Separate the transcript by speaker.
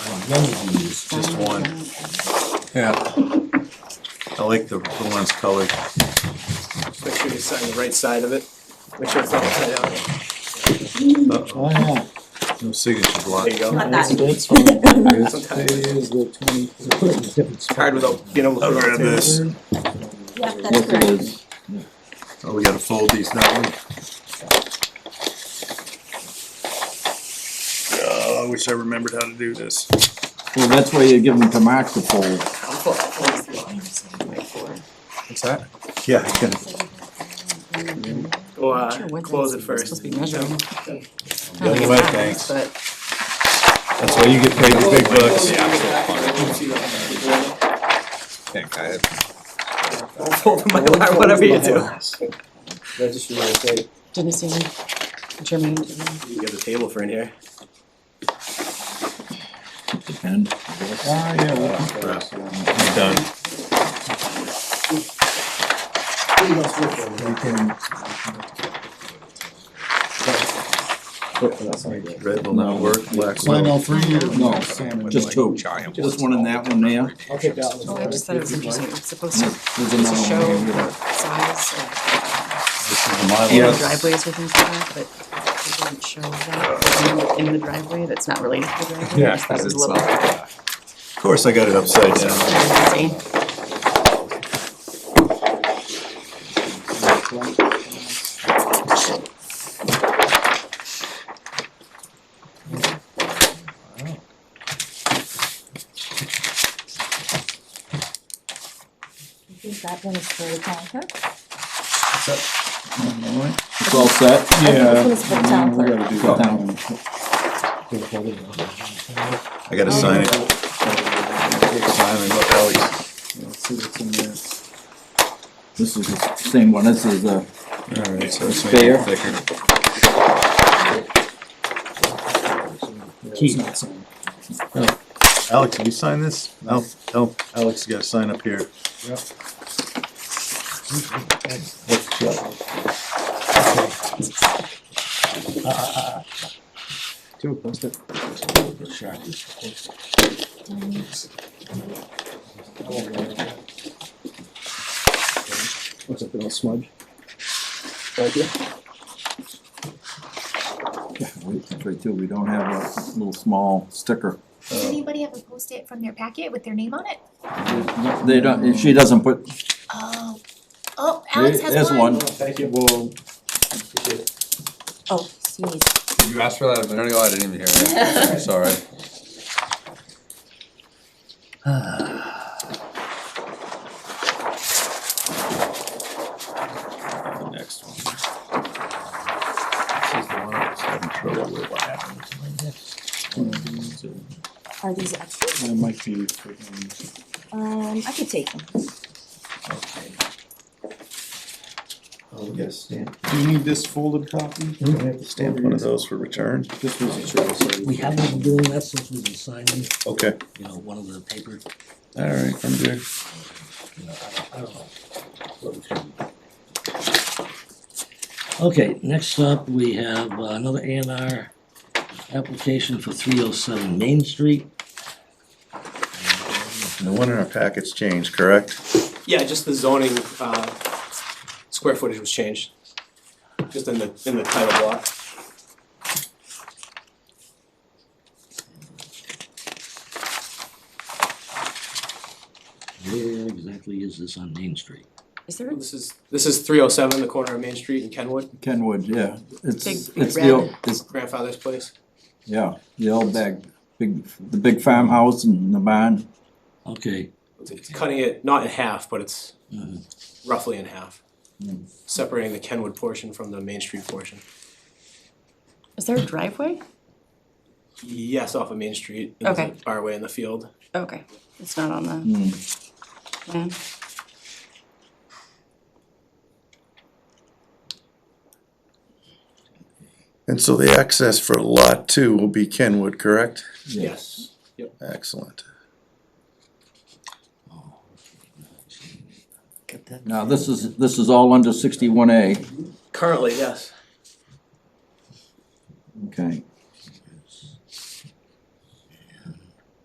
Speaker 1: Then you can use just one.
Speaker 2: Yeah.
Speaker 1: I like the, the ones colored.
Speaker 3: Make sure you sign the right side of it. Make sure it's not upside down.
Speaker 1: Uh-oh,
Speaker 2: Oh, yeah.
Speaker 1: No signature block.
Speaker 3: There you go.
Speaker 4: Not that.
Speaker 2: That's fine. There's-
Speaker 3: Sometimes.
Speaker 2: there is the 20
Speaker 3: It's hard without being able to.
Speaker 1: I'll
Speaker 3: put it
Speaker 1: grab
Speaker 3: on tape.
Speaker 1: this.
Speaker 4: Yep, that's
Speaker 2: Look at
Speaker 4: correct.
Speaker 2: this.
Speaker 1: Oh, we gotta fold these down. Oh, I wish I remembered how to do this.
Speaker 2: Well, that's why you give them to Mark to fold.
Speaker 3: I'll pull- I'll pull this one.
Speaker 1: What's that? Yeah, I can-
Speaker 3: Go,
Speaker 5: Sure,
Speaker 3: uh,
Speaker 5: what's
Speaker 3: close
Speaker 5: it-
Speaker 3: it
Speaker 5: it's
Speaker 3: first.
Speaker 5: supposed to be measured.
Speaker 1: Yeah,
Speaker 5: It's
Speaker 1: well,
Speaker 5: not,
Speaker 1: thanks.
Speaker 5: But
Speaker 1: that's why you get paid the big bucks.
Speaker 3: Don't fold the Mylar, whatever you do.
Speaker 6: Registry my tape.
Speaker 5: didn't see any German. Did
Speaker 3: You got a table for in here.
Speaker 2: Depend. Ah, yeah. well,
Speaker 1: I'm done.
Speaker 6: Pretty much look for it.
Speaker 2: we can-
Speaker 6: Look for that side.
Speaker 1: Red will not work, black
Speaker 2: Sign all
Speaker 1: will.
Speaker 2: three or no? Just two. Just one in that one there.
Speaker 6: I'll take that one.
Speaker 5: Oh, I just thought it was interesting. It's supposed to
Speaker 2: There's
Speaker 5: it's
Speaker 2: another
Speaker 5: a show
Speaker 2: one. here.
Speaker 5: size of
Speaker 1: This is my
Speaker 5: the
Speaker 1: line.
Speaker 5: driveways or things like that, but it doesn't show that in the driveway that's not related to the driveway. I just thought it was a little
Speaker 1: Of course, I got it upside down.
Speaker 5: fancy.
Speaker 4: I think that one is for the town clerk.
Speaker 2: It's all set?
Speaker 4: This one's for the town
Speaker 2: We
Speaker 4: clerk.
Speaker 2: gotta do the town.
Speaker 1: I gotta sign it. Sign it, look, Alex.
Speaker 2: Let's see what's in there. This is the same one. This is uh, the,
Speaker 1: All right, so let's make it thicker. Alex, can you sign this? Al, Al, Alex, you gotta sign up here.
Speaker 6: What's up, little smudge?
Speaker 2: wait, that's right too. We don't have a little small sticker.
Speaker 7: Does anybody have a post-it from their packet with their name on it?
Speaker 2: They don't, she doesn't put,
Speaker 7: Oh, oh, Alex has one.
Speaker 2: there's one.
Speaker 6: Thank you. Well. appreciate it.
Speaker 4: Oh, excuse me.
Speaker 8: You asked for that a minute ago, I didn't even hear it, I'm sorry.
Speaker 1: The next one. This is the one I was having trouble with. What happened to my next?
Speaker 4: Are these extras?
Speaker 6: That might be freaking.
Speaker 4: Um, I could take them.
Speaker 6: Oh, we got a stamp.
Speaker 2: Do you need this folded copy?
Speaker 1: Do I have to stamp one of those for return?
Speaker 2: This was a choice.
Speaker 9: We haven't been doing that since we've been signing,
Speaker 1: Okay,
Speaker 9: you know, one of the paper,
Speaker 1: all right, I'm good.
Speaker 9: you know, I don't, I don't know. what we should- Okay, next up, we have uh, another A and R application for three oh seven Main Street.
Speaker 1: No one in our packets changed, correct?
Speaker 3: Yeah, just the zoning, uh, square footage was changed. Just in the, in the title block.
Speaker 9: Where exactly is this on Main Street?
Speaker 5: Is there a
Speaker 3: This is, this is three oh seven, the corner of Main Street and Kenwood,
Speaker 2: Kenwood, yeah. It's,
Speaker 5: Big
Speaker 2: it's the,
Speaker 5: red.
Speaker 2: old- it's,
Speaker 3: grandfather's place.
Speaker 2: yeah, the old bag, big, the big farmhouse and the barn.
Speaker 9: Okay,
Speaker 3: It's- It's cutting it, not in half, but it's
Speaker 9: Mhm.
Speaker 3: roughly in half. Separating the Kenwood portion from the Main Street portion.
Speaker 5: is there a driveway?
Speaker 3: Yes, off of Main Street, and there's a barway in the field.
Speaker 5: Okay, it's not on the
Speaker 2: Hmm.
Speaker 5: plan.
Speaker 1: And so the access for lot two will be Kenwood, correct?
Speaker 3: Yes.
Speaker 1: Excellent.
Speaker 9: Got that.
Speaker 2: Now, this is, this is all under sixty-one A,
Speaker 3: Currently, yes.
Speaker 2: okay.